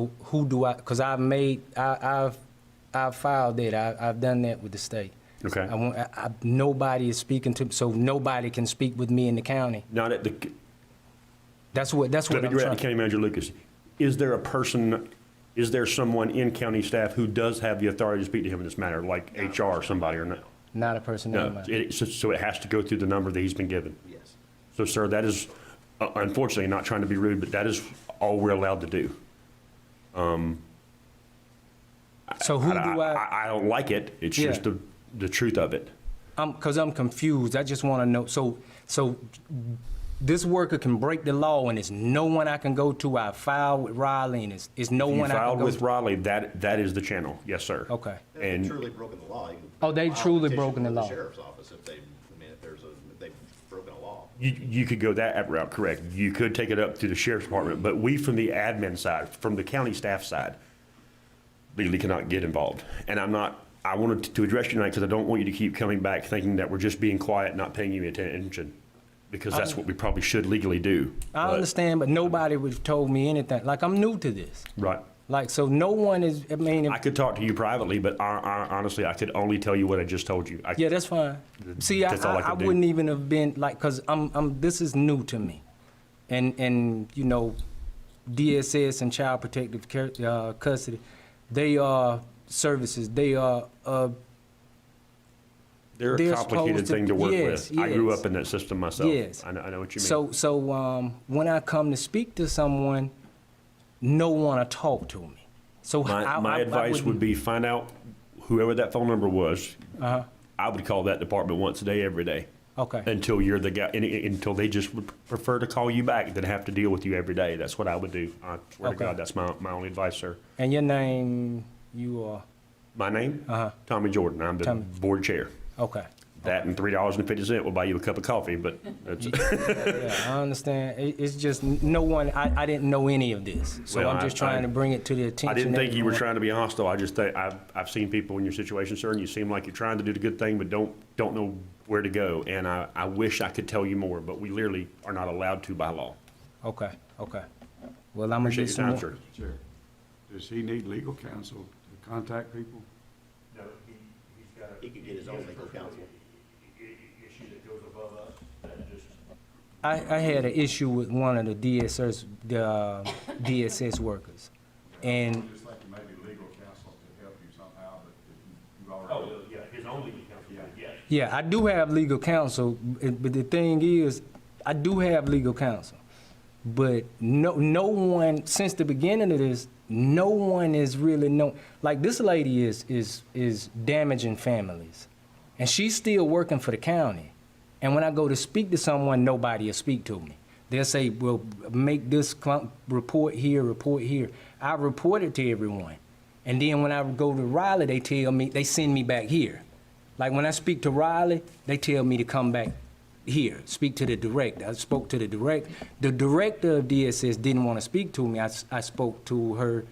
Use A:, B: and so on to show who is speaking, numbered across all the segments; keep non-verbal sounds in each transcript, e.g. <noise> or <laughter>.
A: Who- Who do I, because I've made, I, I've, I've filed it, I, I've done that with the state.
B: Okay.
A: I want, I, I, nobody is speaking to, so nobody can speak with me in the county.
B: Not at the,
A: That's what, that's
B: let
A: what
B: me
A: I'm
B: direct to
A: trying.
B: County Manager Lucas. Is there a person, is there someone in county staff who does have the authority to speak to him in this matter, like HR or somebody or no?
A: Not a person in
B: No,
A: my.
B: it- so- so it has to go through the number that he's been given.
C: Yes.
B: So, sir, that is, uh, unfortunately, not trying to be rude, but that is all we're allowed to do.
A: So who do I?
B: I don't like it, it's
A: Yeah.
B: just the, the truth of it.
A: I'm, cause I'm confused. I just wanna know, so, so this worker can break the law and there's no one I can go to. I filed with Riley and it's, it's no
B: You
A: one I can
B: filed
A: go
B: with
A: to.
B: Riley, that, that is the channel, yes, sir.
A: Okay.
C: They've
B: And,
C: truly broken the law. you can
A: Oh, they've
C: file a
A: truly
C: petition
A: broken the
C: with
A: law.
C: Sheriff's office if they, I mean, if there's a, if they've broken a law.
B: You, you could go that route, correct. You could take it up to the sheriff's department, but we from the admin side, from the county staff side, legally cannot get involved. And I'm not, I wanted to address you tonight because I don't want you to keep coming back thinking that we're just being quiet, not paying you attention. Because that's what we probably should legally do.
A: I
B: But-
A: understand, but nobody would told me anything. Like, I'm new to this.
B: Right.
A: Like, so no one is, I mean, if-
B: I could talk to you privately, but I, I, honestly, I could only tell you what I just told you. I-
A: yeah, that's fine. See, I,
B: That's all I
A: I, I
B: could do.
A: wouldn't even have been, like, cause I'm, I'm, this is new to me. And, and, you know, DSS and Child Protective Care, uh, Custody, they are services, they are, uh,
B: They're a
A: they're
B: complicated
A: supposed to-
B: thing to work
A: yes,
B: with. I grew
A: yes.
B: up in that system myself.
A: Yes.
B: I know, I know what you mean.
A: So, so um, when I come to speak to someone, no one to talk to me. So
B: My,
A: I,
B: my
A: I, I
B: advice
A: wouldn't-
B: would be find out whoever that phone number was.
A: Uh-huh.
B: I would call that department once a day, every day.
A: Okay.
B: Until you're the guy, and, and- until they just would prefer to call you back than have to deal with you every day. That's what I would do. I swear
A: Okay.
B: to God, that's my, my only advice, sir.
A: and your name, you are
B: My name? Tommy Jordan. I'm the
A: Uh-huh. Tommy.
B: board chair.
A: okay.
B: That and three dollars and fifty cent will buy you a cup of coffee, but
A: <laughs>
B: that's,
A: Yeah, I understand. It, it's just n- no one. I, I didn't know any of this, so
B: Well,
A: I'm
B: I-
A: just trying
B: I-
A: to bring it to the attention.
B: I didn't
A: of
B: think you were
A: everyone.
B: trying to be hostile. I just think, I've, I've seen people in your situation, sir, and you seem like you're trying to do the good thing, but don't, don't know where to go. And I, I wish I could tell you more, but we literally are not allowed to by law.
A: Okay. Okay. Well, I'm gonna
B: Appreciate
A: get
B: your
A: some.
B: time,
A: more-
B: sir.
D: Chair, does he need legal counsel to contact people?
C: He could get his own legal counsel.
A: I, I had an issue with one of the DSS the uh, DSS workers, and
D: Just like you maybe legal counsel to help you somehow, but if you already.
B: Oh, yeah, his own legal counsel, yes.
A: Yeah, I do have legal counsel, b- but the thing is, I do have legal counsel. But no, no one since the beginning of this, no one is really known. Like this lady is is is damaging families, and she's still working for the county. And when I go to speak to someone, nobody will speak to me. They'll say, "Well, make this clump, report here, report here." I report it to everyone, and then when I go to Riley, they tell me they send me back here. Like when I speak to Riley, they tell me to come back here, speak to the director. I spoke to the director. The director of DSS didn't want to speak to me. I, s- I spoke to her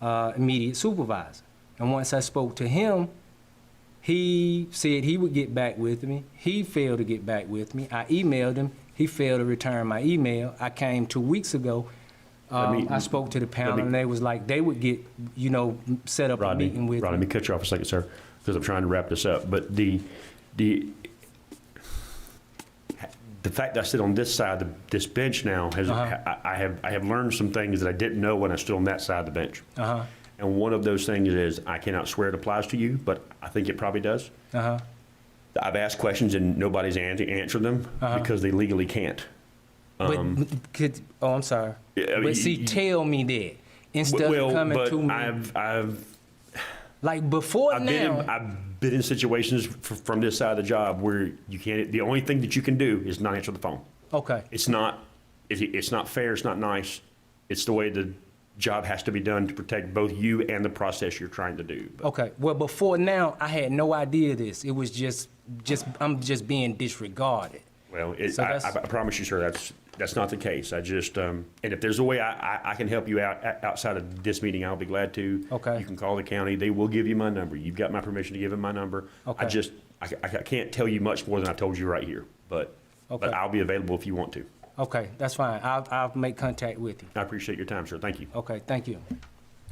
A: uh, immediate supervisor. And once I spoke to him, he said he would get back with me. He failed to get back with me. I emailed him. He failed to return my email. I came two weeks ago. Um,
B: me-
A: I spoke to the panel,
B: me-
A: and they was like they would get, you know, set up a
B: Rodney,
A: meeting with
B: Rodney, let
A: me.
B: me cut you off a second, sir, because I'm trying to wrap this up. But the, the, the fact that I sit on this side of this bench now has,
A: Uh-huh.
B: I, I have, I have learned some things that I didn't know when I stood on that side of the bench.
A: Uh-huh.
B: And one of those things is, I cannot swear it applies to you, but I think it probably does.
A: Uh huh.
B: I've asked questions and nobody's an- answered them
A: Uh-huh.
B: because they legally can't.
A: but could, oh, I'm sorry.
B: Um, Yeah, I mean,
A: but see,
B: you-
A: tell me that instead
B: Well,
A: of coming
B: but
A: to me
B: I've, I've
A: like before
B: I've been
A: now.
B: in, I've been in situations f- from this side of the job where you can't. The only thing that you can do is not answer the phone.
A: okay,
B: It's not. It, it's not fair. It's not nice. It's the way the job has to be done to protect both you and the process you're trying to do. But
A: okay. Well, before now, I had no idea this. It was just, just I'm just being disregarded.
B: well, it,
A: So
B: I,
A: that's-
B: I, I promise you, sir, that's that's not the case. I just um, and if there's a way I, I, I can help you out o- outside of this meeting, I'll be glad to.
A: Okay.
B: You can call the county. They will give you my number. You've got my permission to give them my number. I
A: Okay.
B: just I, I can't tell you much more than I told you right here, but.
A: Okay.
B: But I'll be available if you want to.
A: Okay, that's fine. I'll I'll make contact with you.
B: I appreciate your time, sir. Thank you.
A: Okay, thank you.